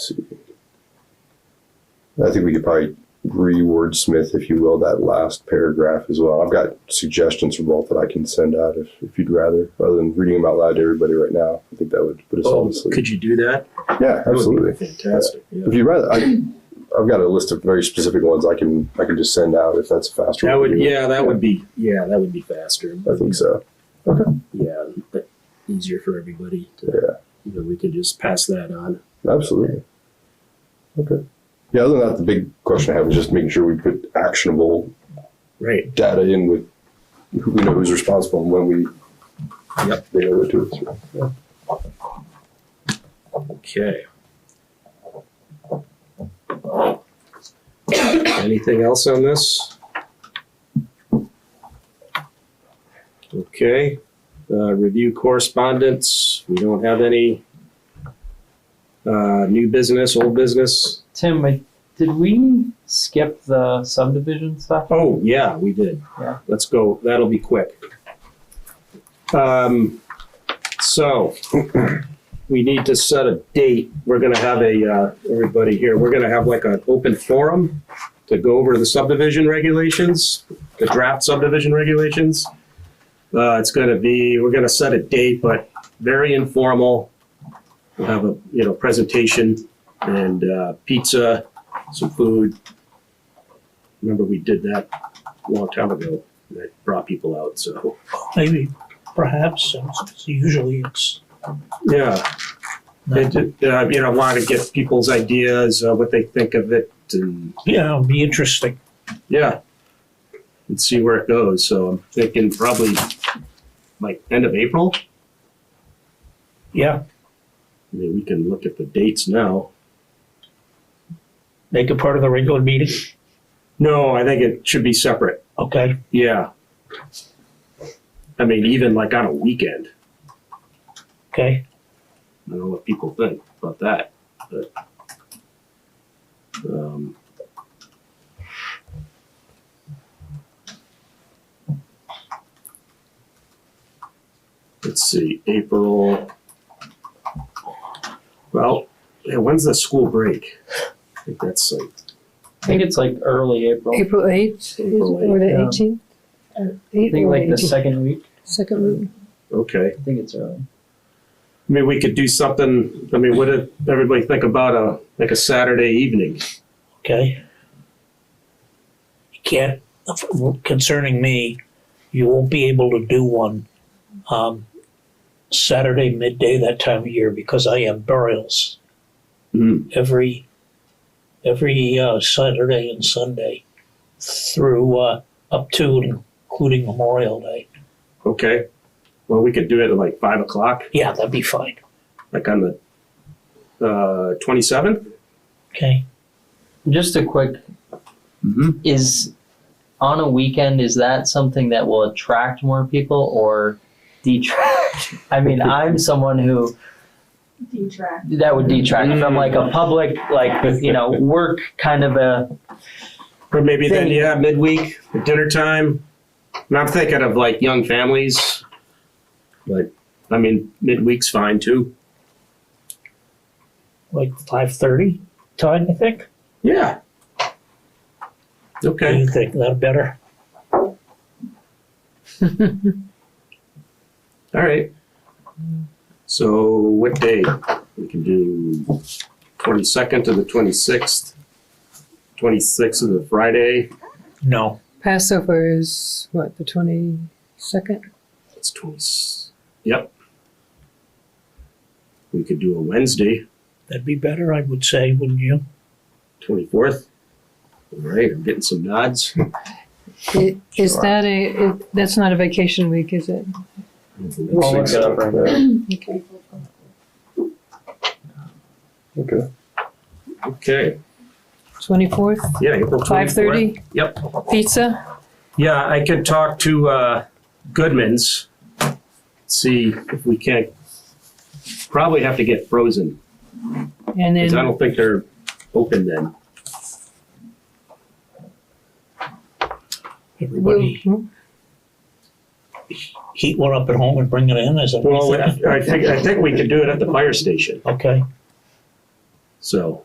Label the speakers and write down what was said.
Speaker 1: I think we could probably re-wordsmith, if you will, that last paragraph as well. I've got suggestions for both that I can send out if, if you'd rather, rather than reading them out loud to everybody right now. I think that would put us all
Speaker 2: Oh,
Speaker 1: to sleep.
Speaker 2: could you do that?
Speaker 1: Yeah,
Speaker 2: That would be
Speaker 1: absolutely.
Speaker 2: Fantastic. Yeah.
Speaker 1: If you'd rather, I, I've got a list of very specific ones I can I can just send out if that's a faster.
Speaker 2: That
Speaker 1: way to
Speaker 2: would,
Speaker 1: do it.
Speaker 2: yeah, that would be, yeah, that would be faster.
Speaker 1: I think so.
Speaker 2: Yeah, but easier for everybody to,
Speaker 1: Yeah.
Speaker 2: you know, we could just pass that on.
Speaker 1: Absolutely. Okay. Yeah. Other than that, the big question I have is just making sure we put actionable
Speaker 2: Right.
Speaker 1: data in with who we know who's responsible and when we.
Speaker 2: Yep.
Speaker 1: They owe it to us.
Speaker 2: Okay. Anything else on this? Okay, uh, review correspondence, we don't have any. Uh, new business, old business,
Speaker 3: Tim, I, did we skip the subdivision stuff?
Speaker 2: oh, yeah, we did.
Speaker 3: Yeah.
Speaker 2: Let's go, that'll be quick. Um, so, we need to set a date. We're gonna have a, uh, everybody here, we're gonna have like an open forum to go over the subdivision regulations, the draft subdivision regulations. Uh, it's gonna be, we're gonna set a date, but very informal. We'll have a, you know, presentation and, uh, pizza, some food. Remember, we did that a long time ago. and That brought people out, so,
Speaker 4: maybe, perhaps, since usually it's
Speaker 2: yeah.
Speaker 4: not.
Speaker 2: And, uh, you know, want to get people's ideas, uh, what they think of it, and
Speaker 4: Yeah, it'll be interesting.
Speaker 2: yeah, and see where it goes. So I'm thinking probably like end of April.
Speaker 4: Yeah,
Speaker 2: I mean, we can look at the dates now.
Speaker 4: make it part of the regular meeting.
Speaker 2: No, I think it should be separate.
Speaker 4: Okay,
Speaker 2: Yeah. I mean, even like on a weekend.
Speaker 4: okay.
Speaker 2: I don't know what people think about that, but. Um, let's see, April. Well, yeah, when's the school break? I think that's like,
Speaker 3: I think it's like early April. I
Speaker 5: April eighth,
Speaker 2: April
Speaker 5: or the
Speaker 4: yeah.
Speaker 5: eighteenth? Uh,
Speaker 3: think like the second week.
Speaker 5: Second week.
Speaker 2: okay.
Speaker 3: I think it's early.
Speaker 2: I mean, we could do something, I mean, what did everybody think about a, like a Saturday evening?
Speaker 4: Okay. You can't, concerning me, you won't be able to do one um, Saturday midday that time of year because I have burials
Speaker 2: Hmm,
Speaker 4: every every uh, Saturday and Sunday through uh, up to and including Memorial Day.
Speaker 2: okay. Well, we could do it at like five o'clock.
Speaker 4: Yeah, that'd be fine.
Speaker 2: like on the uh, 27th.
Speaker 4: Okay.
Speaker 3: Just a quick
Speaker 2: Mm-hmm.
Speaker 3: is on a weekend is that something that will attract more people or detract? I mean, I'm someone who
Speaker 6: detract.
Speaker 3: that would detract from like a public like you know work kind of a
Speaker 2: Or maybe then,
Speaker 3: Then-
Speaker 2: yeah, midweek, dinner time. And I'm thinking of like young families, but I mean, midweek's fine too.
Speaker 4: Like five thirty time, I think.
Speaker 2: Yeah.
Speaker 4: Do
Speaker 2: Okay.
Speaker 4: you think that better?
Speaker 2: All right. So, what day? We can do 22nd to the 26th. 26th is a Friday.
Speaker 4: No.
Speaker 5: Passover is what, the twenty-second?
Speaker 2: It's 20. Yep. We could do a Wednesday.
Speaker 4: That'd be better, I would say, wouldn't you?
Speaker 2: 24th. All right, I'm getting some nods.
Speaker 5: Is
Speaker 1: Sure.
Speaker 5: that a, it- that's not a vacation week, is it?
Speaker 3: I'll look it up right now.
Speaker 5: Okay.
Speaker 1: Okay.
Speaker 2: Okay,
Speaker 5: Twenty-fourth,
Speaker 2: yeah, April 24th.
Speaker 5: five-thirty,
Speaker 2: Yep.
Speaker 5: pizza?
Speaker 2: Yeah, I could talk to uh, Goodman's, see if we can't, probably have to get frozen,
Speaker 5: And
Speaker 2: because I
Speaker 5: then
Speaker 2: don't think they're open then.
Speaker 5: we'll,
Speaker 4: Everybody heat one up at home and bring it in as a
Speaker 2: Well, I think, I think we could do it at the fire station,
Speaker 4: Okay.
Speaker 2: so.